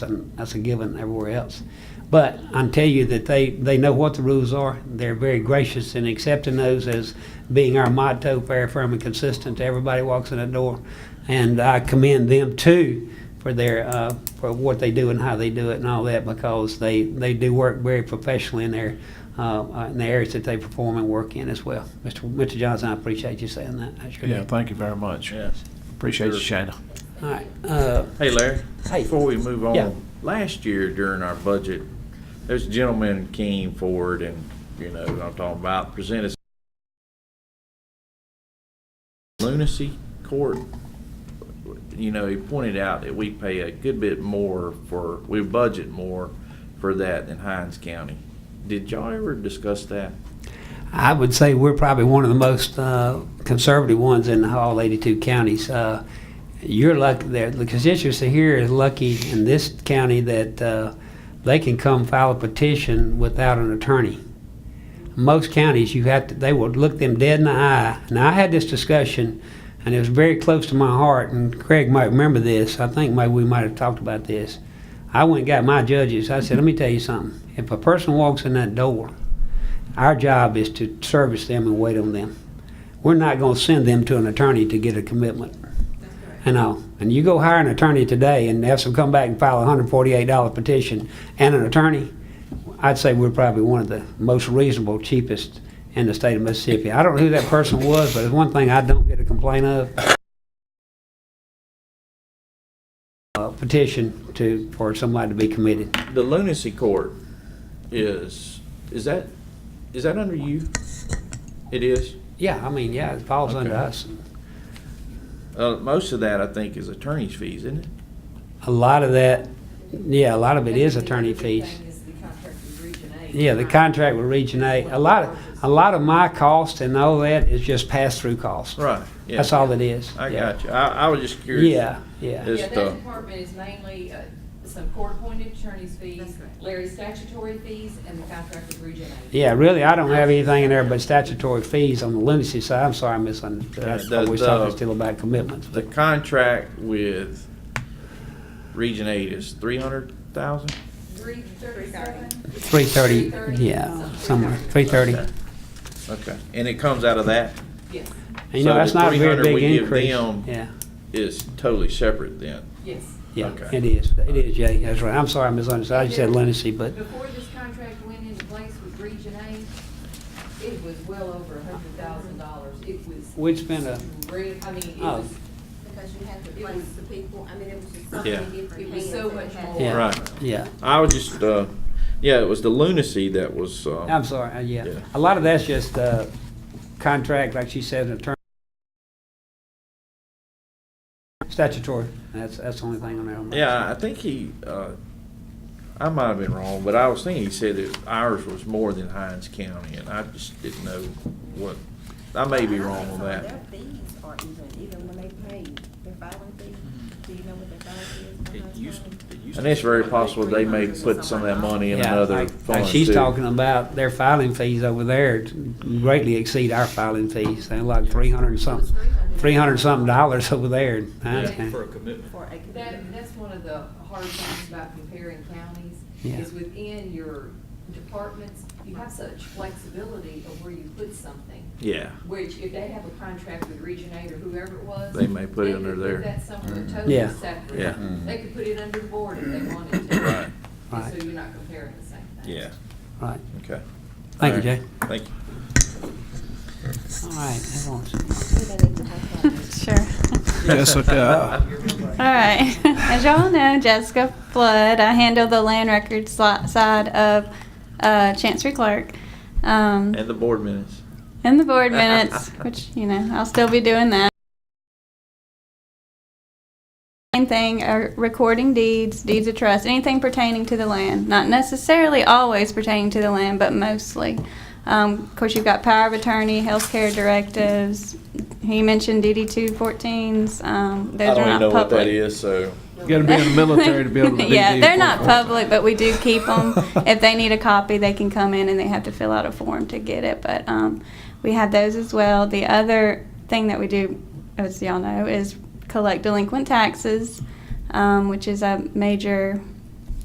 So that's a given everywhere else. But I'm telling you that they, they know what the rules are. They're very gracious in accepting those as being our motto, fair, firm, and consistent. to Everybody walks in the door. And I commend them too for their, uh, for what they do and how they do it and all that because they, they do work very professionally in their, uh, uh, in the areas that they perform and work in as well. Mr. Mr. Johnson, I appreciate you saying that. I sure do. Yeah, thank you very much. Yes. Appreciate you, Shana. All right. Uh, Hey, Larry. Hey. Before we move Yeah. on, last year during our budget, this gentleman came forward and, you know, what I'm talking about, presented lunacy court. You know, he pointed out that we pay a good bit more for, we budget more for that than Hines County. Did y'all ever discuss that? I would say we're probably one of the most uh, conservative ones in all 82 counties. Uh, You're lucky, there- the constituency here is lucky in this county that uh, they can come file a petition without an attorney. Most counties, you have to, they will look them dead in the eye. Now, I had this discussion, and it was very close to my heart, and Craig might remember this. I think maybe we might have talked about this. I went and got my judges. I said, let me tell you something. If a person walks in that door our job is to service them and wait on them. We're not going to send them to an attorney to get a commitment. And all. And you go hire an attorney today and have them come back and file a $148 petition and an attorney, I'd say we're probably one of the most reasonable, cheapest in the state of Mississippi. I don't know who that person was, but it's one thing I don't get a complaint of. Uh, Petition to, for somebody to be committed. The lunacy court is, is that, is that under you? It is? Yeah, I mean, yeah, it falls under Okay. us. Uh, most of that, I think, is attorney's fees, isn't it? A lot of that, yeah, a lot of it is attorney fees. Yeah, the contract with Region Eight, a lot of, a lot of my cost and all that is just pass-through costs. Right. Yeah. That's all it is. I Yeah. got you. I, I was just curious. Yeah, yeah. Is- Yeah, the- that department is mainly uh, some court-appointed attorney's fees, Larry's statutory fees, and the contract with Region Eight. Yeah, really, I don't have anything in there but statutory fees on the lunacy side. I'm sorry, I misunderstood. I Yeah, the- thought we was talking the- still about commitments. The contract with Region Eight is three hundred thousand? Three thirty-seven? Three thirty, yeah, something. somewhere, three thirty. Okay. Okay. And it comes out of that Yes, You know, So that's the not a very 300 we big give increase. them- Yeah, is totally separate then. yes. yeah, Okay. it is. It is, Jay, that's right. I'm sorry, I misunderstood. I just said lunacy, but Before this contract went into place with Region Eight, it was well over a hundred thousand dollars. It was, we'd spend a, re- I mean, it Oh. was, Because you have to It place was- the people, I mean, it was just so Yeah. many different it was hands so that much had to- more. yeah. Right. yeah. I was just, uh, yeah, it was the lunacy that was, uh, I'm sorry, uh, yeah. Yeah. A lot of that's just uh, contract, like she said, attorney. Statutory, that's, that's the only thing on there. I'm not- yeah, I think he, uh, I might have been wrong, but I was thinking he said that ours was more than Hines County and I just didn't know what, I may be wrong on So that. Their fees are even, even when they pay their filing fee, do you know what their filing fee is? for household? And it's very possible they may put some of that money in Yeah, another like- fund Like she's too. talking about, their filing fees over there greatly exceed our filing fees. They're like three hundred and it was something, three hundred and something dollars over there. in Hines Yeah. County. For a commitment. For a commitment. That, that's one of the hard things about comparing counties, Yeah. is within your departments, you have such flexibility of where you put something, Yeah. which if they have a contract with Region Eight or whoever it was. They may put it they could under there. that somewhere totally Yeah. separate. Yeah. They could put it under the board if they wanted to. Right. And Right. So you're not comparing the same thing. Yeah, Right, okay. thank you, All right. Jay. Thank you. All right, that was- We don't need to talk about it. Sure. Yes, okay. All right. As y'all know, Jessica Flood, I handle the land records li- side of uh, Chancery Clerk. Um, And the board minutes. and the board minutes, which, you know, I'll still be doing that. Same thing, uh, recording deeds, deeds of trust, anything pertaining to the land. Not necessarily always pertaining to the land, but mostly. Um, of course, you've got power of attorney, healthcare directives. He mentioned DD 214s. Um, those I don't are not even know public. what that is, so. Gotta be in the military to be able to do yeah, deed they're not forfeit. public, but we do keep them. if they need a copy, they can come in and they have to fill out a form to get it. But um, we have those as well. The other thing that we do, as y'all know, is collect delinquent taxes, um, which is a major